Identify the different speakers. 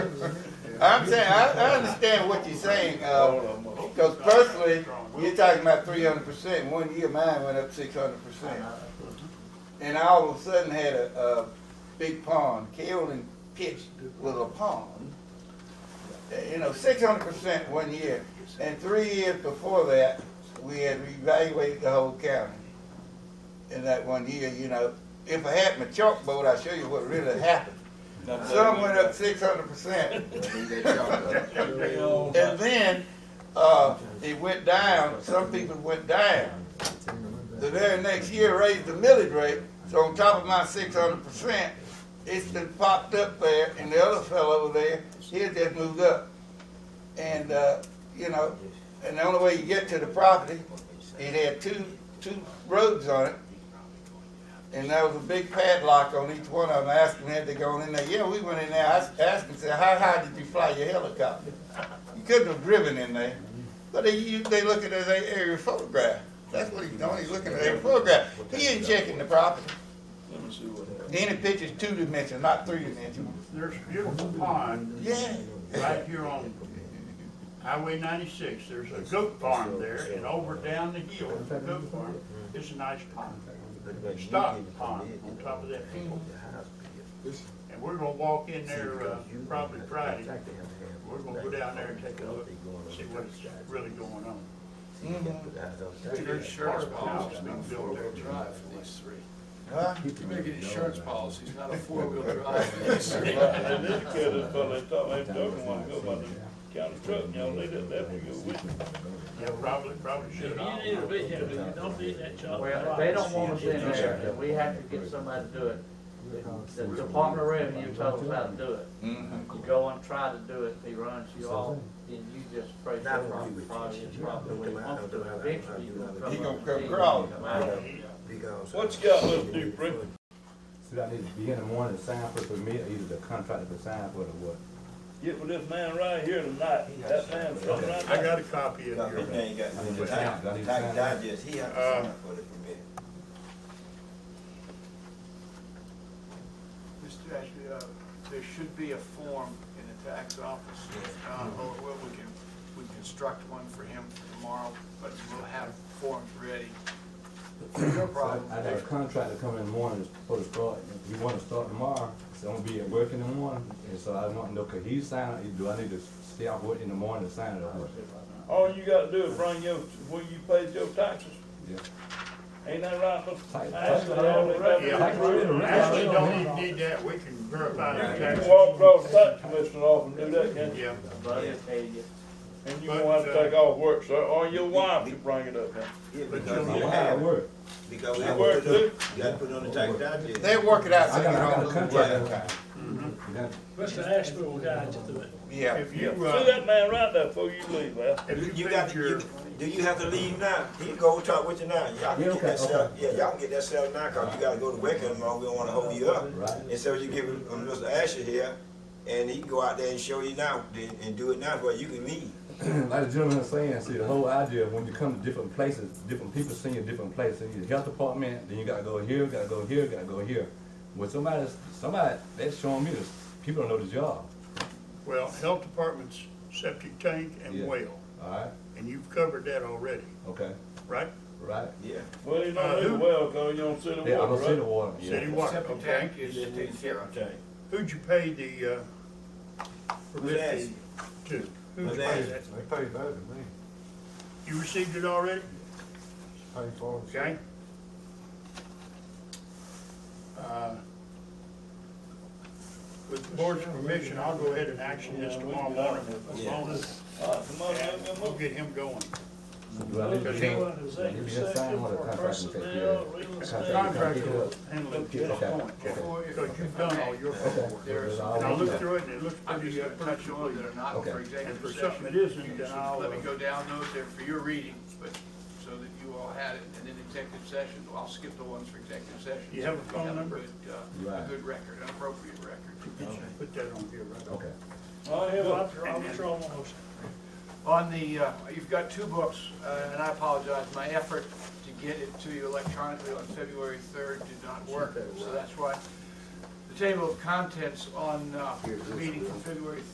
Speaker 1: I'm saying, I, I understand what you're saying, because personally, you're talking about three hundred percent, one year mine went up six hundred percent. And I all of a sudden had a, a big pond, Carolyn pitched little pond. Uh, You know, six hundred percent one year, and three years before that, we had reevaluated the whole county. In that one year, you know, if I had my chalkboard, I'd show you what really happened. Some went up six hundred percent, and then, uh, it went down, some people went down. The very next year raised the millage rate, so on top of my six hundred percent, it's been popped up there, and the other fellow over there, he had just moved up. And, uh, you know, and the only way you get to the property, it had two, two roads on it. And there was a big padlock on each one of them, asking had they gone in there, yeah, we went in there, I asked- asked and said, how high did you fly your helicopter? You couldn't have driven in there. But they, you- they look at that aerial photograph. That's what he's doing, he's looking at every photograph. He ain't checking the property.
Speaker 2: Let me see what happens.
Speaker 1: Any picture's two dimensional, not three dimensional.
Speaker 3: There's a beautiful pond
Speaker 1: Yeah.
Speaker 3: right here on Highway ninety-six. There's a goat farm there and over down the hill, the goat farm, it's a nice pond. Stock pond on top of that hill. And we're gonna walk in there, uh, probably Friday. We're gonna go down there and take a look, see what's really going on.
Speaker 1: Mm-hmm.
Speaker 2: Your insurance policy's not
Speaker 3: Been
Speaker 2: a
Speaker 3: built there.
Speaker 2: four-wheel drive for these three.
Speaker 1: Huh?
Speaker 2: You're making insurance policies, not a four-wheel drive for these three.
Speaker 4: And this kid, is probably thought they don't want to go by the county truck, you know, they did that for you.
Speaker 3: Yeah, probably, probably
Speaker 5: You
Speaker 3: should.
Speaker 5: need to be here, but you don't need that job.
Speaker 6: Well, if they don't want us in there, then we have to get somebody to do it. The Department of Revenue told us how to do it.
Speaker 1: Mhm.
Speaker 6: You go and try to do it, he runs you off, then you just pray for the property, probably, probably when he wants to, eventually you gonna come.
Speaker 1: He gonna
Speaker 6: up
Speaker 1: come
Speaker 6: and see
Speaker 1: crawling.
Speaker 6: him come out of it.
Speaker 4: What you got, little dude, Rick?
Speaker 7: So that needs to be in the morning to sign for the permit, either the contractor to sign for the what?
Speaker 4: Get with this man right here tonight, that man from right
Speaker 3: I
Speaker 4: there.
Speaker 3: got a copy of your.
Speaker 7: I need to sign, I need to sign.
Speaker 3: Uh,
Speaker 8: Mr. Ashley, uh, there should be a form in the tax office, uh, or or we can, we can construct one for him for tomorrow, but we'll have forms ready. No problem.
Speaker 7: I got a contractor coming in the morning for the start, if you wanna start tomorrow, it's gonna be at work in the morning, and so I want to know, could he sign it, do I need to stay out work in the morning to sign it or what?
Speaker 4: All you gotta do is bring your, where you paid your taxes.
Speaker 7: Yeah.
Speaker 4: Ain't that right, Mr.
Speaker 7: Tight-
Speaker 4: Ashley? All they gotta do is
Speaker 3: Yeah.
Speaker 4: prove it.
Speaker 3: Actually, don't even need that, we can verify the
Speaker 4: You
Speaker 3: tax.
Speaker 4: can walk across the tax commission office and do that, can't you?
Speaker 3: Yeah,
Speaker 6: Buddy will tell you.
Speaker 4: And you won't have to take off work, sir, or your wife can bring it up, man.
Speaker 3: but
Speaker 7: My
Speaker 3: you'll,
Speaker 7: wife at work,
Speaker 9: Because we
Speaker 4: That
Speaker 9: have
Speaker 4: work
Speaker 9: to,
Speaker 4: too?
Speaker 9: you gotta put it on the tax digest.
Speaker 1: They work it out so
Speaker 7: I
Speaker 1: you
Speaker 7: got, I got a
Speaker 1: don't lose
Speaker 7: contractor,
Speaker 1: that.
Speaker 7: You Mm-hmm. got-
Speaker 5: Mr. Ashby will guide you through it.
Speaker 1: Yeah.
Speaker 3: if
Speaker 4: Yeah,
Speaker 3: you,
Speaker 4: see
Speaker 3: uh,
Speaker 4: that man right there before you leave, man.
Speaker 3: if you
Speaker 9: You got
Speaker 3: think
Speaker 9: to, you,
Speaker 3: you're,
Speaker 9: do you have to leave now? He go talk with you now. Y'all
Speaker 7: Yeah,
Speaker 9: can get
Speaker 7: okay,
Speaker 9: that stuff,
Speaker 7: okay.
Speaker 9: yeah, y'all can get that stuff now, cause you gotta go to work in the morning, we don't wanna hold you up.
Speaker 7: Right.
Speaker 9: And so you give him, um, Mr. Asher here, and he can go out there and show you now, then- and do it now, where you can leave.
Speaker 7: like the gentleman was saying, see, the whole idea, when you come to different places, different people sing in different places, you the health department, then you gotta go here, gotta go here, gotta go here. When somebody, somebody, that's showing me this, people don't know the job,
Speaker 3: well, health department's septic tank
Speaker 7: Yeah.
Speaker 3: and well,
Speaker 7: alright,
Speaker 3: and you've covered that already,
Speaker 7: okay,
Speaker 3: right?
Speaker 7: right?
Speaker 9: Yeah.
Speaker 4: Well, you
Speaker 5: Uh,
Speaker 4: don't do well, cause you don't see the
Speaker 7: Yeah, I don't see
Speaker 4: water,
Speaker 7: the
Speaker 4: right?
Speaker 7: water,
Speaker 3: City
Speaker 7: yeah.
Speaker 3: water,
Speaker 8: Septic
Speaker 3: okay?
Speaker 8: tank is taken care of.
Speaker 3: Who'd you pay the, uh,
Speaker 9: Who's
Speaker 3: permit
Speaker 9: Asher?
Speaker 3: fee to? Who'd you
Speaker 9: Who's
Speaker 3: pay
Speaker 9: Asher?
Speaker 3: that? You received it already? Okay. Uh, With the board's permission, I'll go ahead and action this tomorrow morning, as long as,
Speaker 4: All right, come on, let me
Speaker 3: we'll
Speaker 4: move.
Speaker 3: get him going.
Speaker 7: Do I need to change?
Speaker 5: Go into executive session for personnel, real estate.
Speaker 3: Contractor handling at this
Speaker 7: Okay.
Speaker 3: point, because you've done all your homework.
Speaker 8: There's,
Speaker 3: And I looked through it, and it looks
Speaker 8: I'm
Speaker 3: pretty,
Speaker 8: just
Speaker 3: uh,
Speaker 8: gonna
Speaker 3: pretty
Speaker 8: touch on that
Speaker 3: good.
Speaker 8: are not for
Speaker 7: Okay.
Speaker 3: And for
Speaker 8: executive
Speaker 3: something that
Speaker 8: session.
Speaker 3: isn't, then I'll, uh,
Speaker 8: Let me go down those there for your reading, but, so that you all had it, and then executive session, I'll skip the ones for executive session.
Speaker 3: You have a
Speaker 8: We
Speaker 3: phone number?
Speaker 8: good, uh, A
Speaker 7: Right.
Speaker 8: good record, an appropriate record.
Speaker 3: put that on here, right?
Speaker 7: Okay.
Speaker 4: All right, here,
Speaker 5: I'll
Speaker 4: well,
Speaker 5: draw, I'll withdraw my motion.
Speaker 8: On the, uh, you've got two books, uh, and I apologize, my effort to get it to you electronically on February 3rd did not work, so that's why the table of contents on uh, the meeting from February